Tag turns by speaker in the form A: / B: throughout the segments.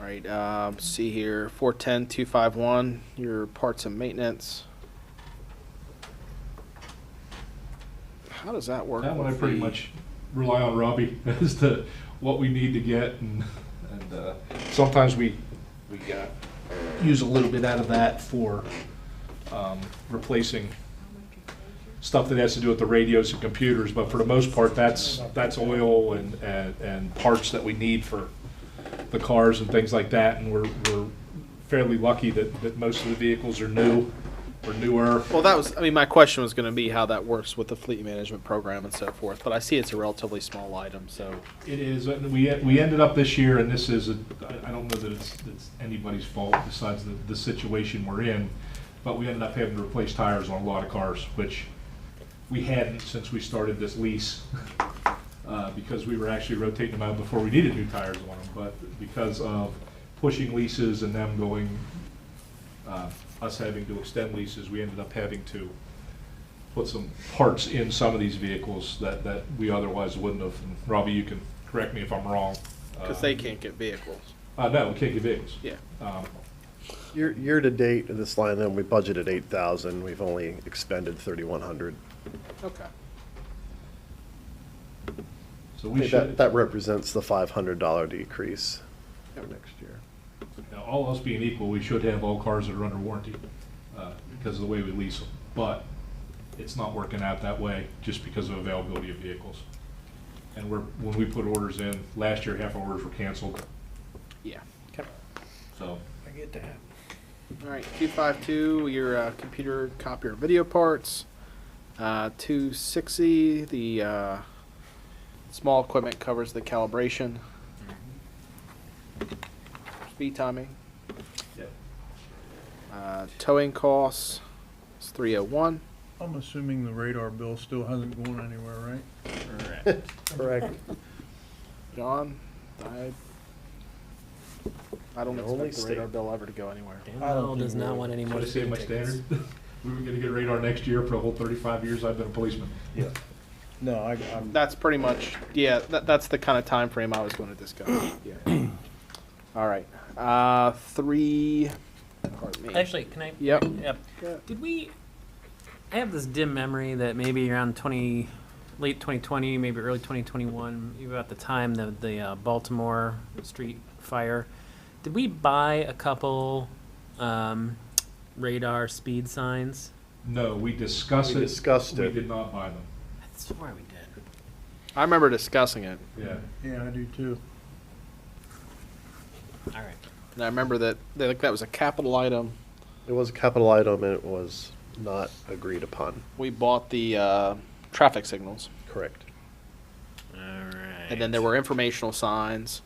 A: right, uh, see here, four ten, two five one, your parts and maintenance. How does that work?
B: That one I
A: with
B: pretty
A: the-
B: much rely on Robbie as to what we need to get and, and, uh, sometimes we, we got, use a little bit out of that for, um, replacing stuff that has to do with the radios and computers, but for the most part, that's, that's oil and, and, and parts that we need for the cars and things like that, and we're, we're fairly lucky that, that most of the vehicles are new, or newer.
A: Well, that was, I mean, my question was gonna be how that works with the fleet management program and so forth, but I see it's a relatively small item, so.
B: It is, and we, we ended up this year, and this is, a- I I don't know that it's, it's anybody's fault besides the, the situation we're in, but we ended up having to replace tires on a lot of cars, which we hadn't since we started this lease, uh, because we were actually rotating them out before we needed new tires on them, but because of pushing leases and them going, uh, us having to extend leases, we ended up having to put some parts in some of these vehicles that, that we otherwise wouldn't have. And Robbie, you can correct me if I'm wrong.
A: Cause
B: Um,
A: they can't get vehicles,
B: Uh, no, we can't get vehicles.
A: yeah.
B: Um,
C: Year, year to date, in this line, then, we budgeted eight thousand, we've only expended thirty-one hundred.
A: Okay.
B: So we
C: That,
B: should,
C: that represents the five hundred dollar decrease for
A: Yep.
C: next year.
B: now, all else being equal, we should have all cars that are under warranty, uh, because of the way we lease them. But it's not working out that way, just because of availability of vehicles. And we're, when we put orders in, last year, half our orders were canceled,
A: Yeah. Okay.
B: so.
D: I get that.
A: All right, two five two, your uh, computer copier video parts. Uh, two sixty, the uh, small equipment covers the calibration. Speed timing, uh, towing costs, it's three oh one.
D: I'm assuming the radar bill still hasn't gone anywhere, right?
C: Correct.
A: John, I, I don't
C: The only
A: expect the radar
C: state-
A: bill ever to go anywhere.
E: Daniel does not want any
B: Should
E: more.
B: I say my
E: tickets.
B: standard? We were gonna get radar next year for the whole thirty-five years I've been a policeman.
D: Yeah. No, I, I'm,
A: That's pretty much, yeah, that, that's the kind of time frame I was going to discuss. Yeah. All right, uh, three. pardon me.
E: Actually, can I?
A: Yep.
E: Yep.
A: Yeah.
E: Did we? I have this dim memory that maybe around twenty, late twenty twenty, maybe early twenty twenty one, even at the time the the uh, Baltimore street fire. Did we buy a couple um, radar speed signs?
B: No, we discussed
C: We
B: it.
C: discussed
B: We
C: it.
B: did not buy them,
E: I swear we did.
A: I remember discussing it,
B: yeah.
D: yeah, I do too.
E: All right.
A: and I remember that that, like, that was a capital item.
C: It was a capital item and it was not agreed upon,
A: We bought the uh, traffic signals,
C: correct?
E: All right.
A: and then there were informational signs,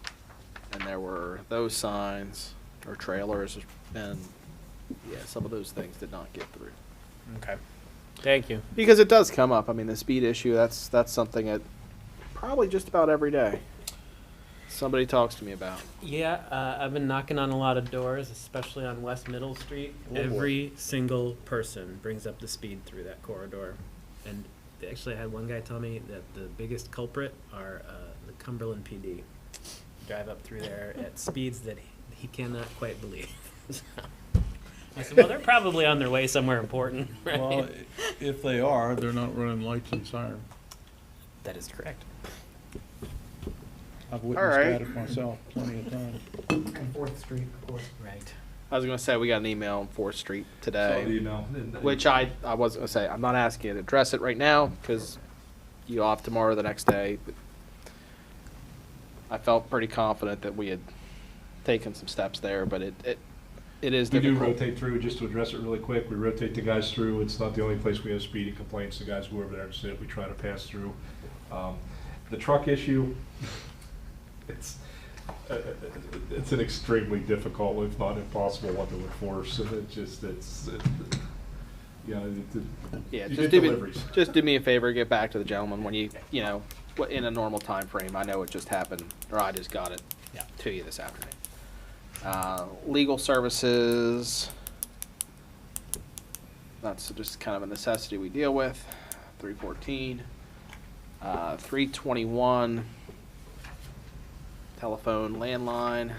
A: and there were those signs or trailers, and yeah, some of those things did not get through
E: Okay. Thank you.
A: because it does come up. I mean, the speed issue that's that's something that probably just about every day somebody talks to me about.
E: Yeah, uh, I've been knocking on a lot of doors, especially on West Middle Street. Every single person brings up the speed through that corridor, and they actually had one guy tell me that the biggest culprit are uh, the Cumberland PD. Drive up through there at speeds that he, he cannot quite believe. So, I said, well, they're probably on their way somewhere important. Right?
D: Well, i- if they are, they're not running lights and sirens.
E: that is correct.
D: I've
A: right.
D: witnessed that myself plenty of times.
E: Fourth Street, of course. Right.
A: I was gonna say we got an email on Fourth Street today.
B: Saw the email. and- and-
A: Which I, I was gonna say, I'm not asking you to address it right now, because you off tomorrow, the next day. but I felt pretty confident that we had taken some steps there, but it, it, it is
B: We do
A: difficult.
B: rotate through, just to address it really quick, we rotate the guys through, it's not the only place we have speeding complaints, the guys go over there and sit, we try to pass through. Um, The truck issue, it's, uh, it's an extremely difficult, if not impossible, one to enforce, and it just, it's, it- you know, it- it-
A: Yeah,
B: you
A: just
B: get
A: do me,
B: deliveries.
A: just do me a favor, get back to the gentleman when you, you know, wh- in a normal time frame. I know it just happened, or I just got it
E: Yeah.
A: to you this afternoon. Uh, legal services, that's just kind of a necessity we deal with, three fourteen. Uh, three twenty-one, telephone, landline.